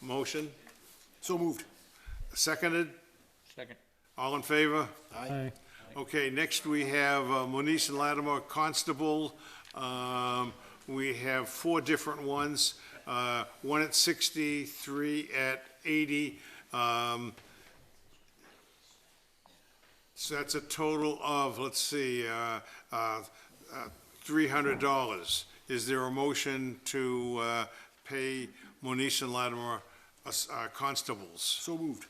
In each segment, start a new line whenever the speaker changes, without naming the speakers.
Motion,
So moved.
seconded,
Second.
all in favor?
Aye.
Okay, next we have uh, Moniz and Latimer Constable. Um, We have four different ones, uh, one at 63 at 80. um, So that's a total of, let's see, uh, uh, uh, $300. Is there a motion to uh, pay Moniz and Latimer uh, s- uh, constables?
So moved.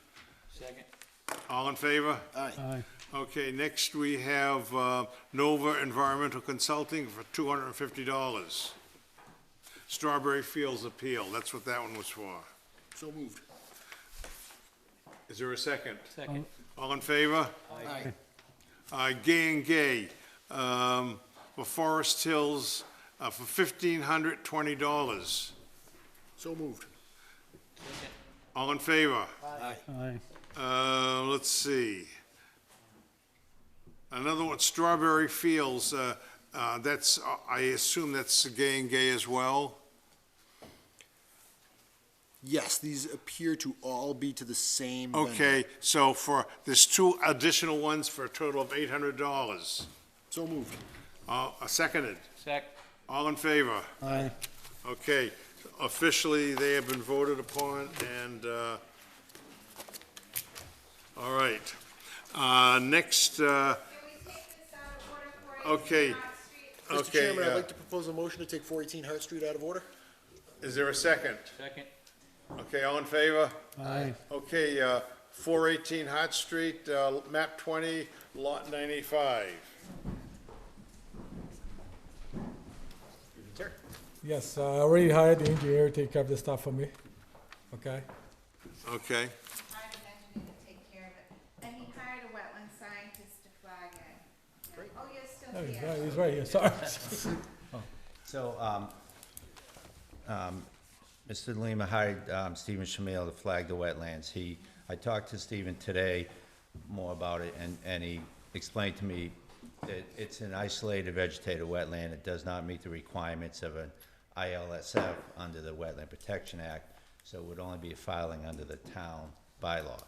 Second.
All in favor?
Aye.
Okay, next we have uh, Nova Environmental Consulting for two hundred and fifty dollars. Strawberry Fields Appeal, that's what that one was for.
So moved.
Is there a second?
Second.
All in favor?
Aye.
Uh, Gay and Gay, um, for Forest Hills, uh, for fifteen hundred twenty dollars.
So moved.
All in favor?
Aye.
Aye.
Uh, let's see. Another one, Strawberry Fields, uh, uh, that's, I assume that's Gay and Gay as well?
Yes, these appear to all be to the same vendor.
Okay, so for, there's two additional ones for a total of eight hundred dollars.
So moved.
Uh, seconded,
Sec.
all in favor?
Aye.
Okay, officially, they have been voted upon, and, uh, all right. Uh, next, uh,
Can we take this out of order for it?
Okay.
It's not street-
Mr.
okay,
Chairman, I'd
uh,
like to propose a motion to take 418 Hart Street out of order.
is there a second?
Second.
Okay, all in favor?
Aye.
Okay, uh, 418 Hot Street, uh, map 20, lot 95.
Yes, uh, I already hired the engineer to take care of the stuff for me, okay?
Okay.
I would engineer to take care of it. And he hired a wetland scientist to flag it. Oh, you're still
Oh, he's
here.
right, he's right here, sorry.
So, um, um, Mr. Lima hired, um, Stephen Shamil to flag the wetlands. He, I talked to Stephen today more about it, and, and he explained to me that it's an isolated vegetated wetland. It does not meet the requirements of an ILSF under the Wetland Protection Act, so it would only be a filing under the town bylaw.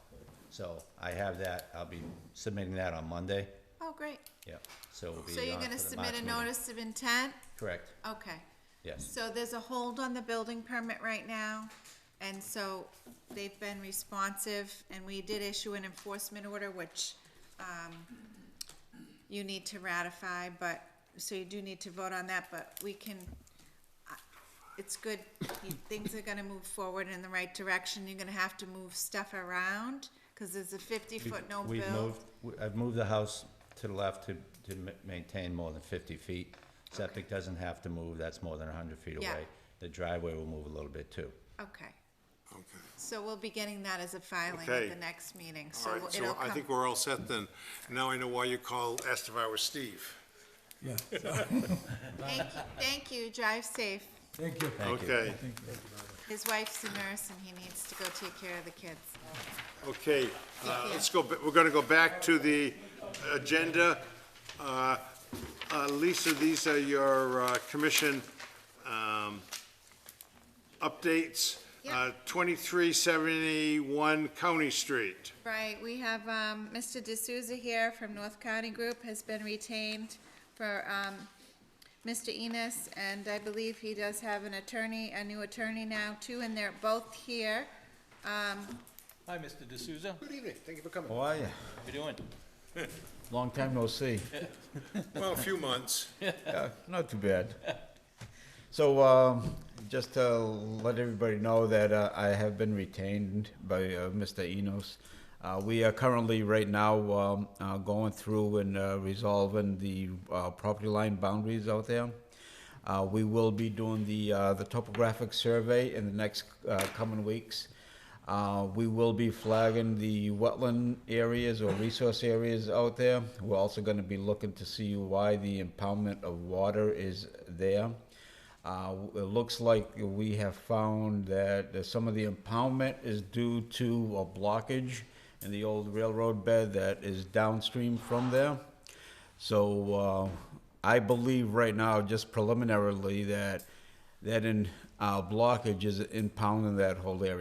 So I have that, I'll be submitting that on Monday,
Oh, great.
yep, so it'll be on
So you're
for
gonna
the
submit
March
a
meeting.
notice of intent?
Correct,
Okay.
yes.
So there's a hold on the building permit right now, and so they've been responsive, and we did issue an enforcement order, which, um, you need to ratify, but, so you do need to vote on that, but we can, I- it's good, you- things are gonna move forward in the right direction, you're gonna have to move stuff around, cause there's a
We've-
fifty-foot no
We've
build.
moved, we- I've moved the house to the left to, to ma- maintain more than fifty feet. Septic doesn't have to move, that's more than hundred feet
Yeah.
away. The driveway will move a little bit too.
Okay,
Okay.
so we'll be getting that as a filing
Okay.
at the next meeting,
All
so
right,
it'll
so
come.
I think we're all set then. Now I know why you called, asked if I was Steve.
Yeah,
Thank you, thank you, drive safe.
thank you.
Thank you.
Okay,
His wife's a nurse and he needs to go take care of the kids.
okay. Uh,
you.
Let's go, ba- we're gonna go back to the agenda. Uh, uh, Lisa, these are your uh, commission um, updates.
Yep.
Uh, 2371 County Street.
Right, we have, um, Mr. D'Souza here from North County Group has been retained for, um, Mr. Enos, and I believe he does have an attorney, a new attorney now too, and they're both here.
Hi, Mr. D'Souza. How
Good evening. Thank you for coming.
How are you?
you doing?
Long time no see.
Well, a few months.
Yeah, not too bad. So, um, just to let everybody know that uh, I have been retained by uh, Mr. Enos. Uh, we are currently, right now, um, uh, going through and uh, resolving the uh, property line boundaries out there. Uh, we will be doing the uh, the topographic survey in the next uh, coming weeks. Uh, we will be flagging the wetland areas or resource areas out there. We're also going to be looking to see why the impoundment of water is there. Uh, it looks like we have found that some of the impoundment is due to a blockage in the old railroad bed that is downstream from there. So uh, I believe right now, just preliminarily, that that in uh, blockage is impounding that whole area.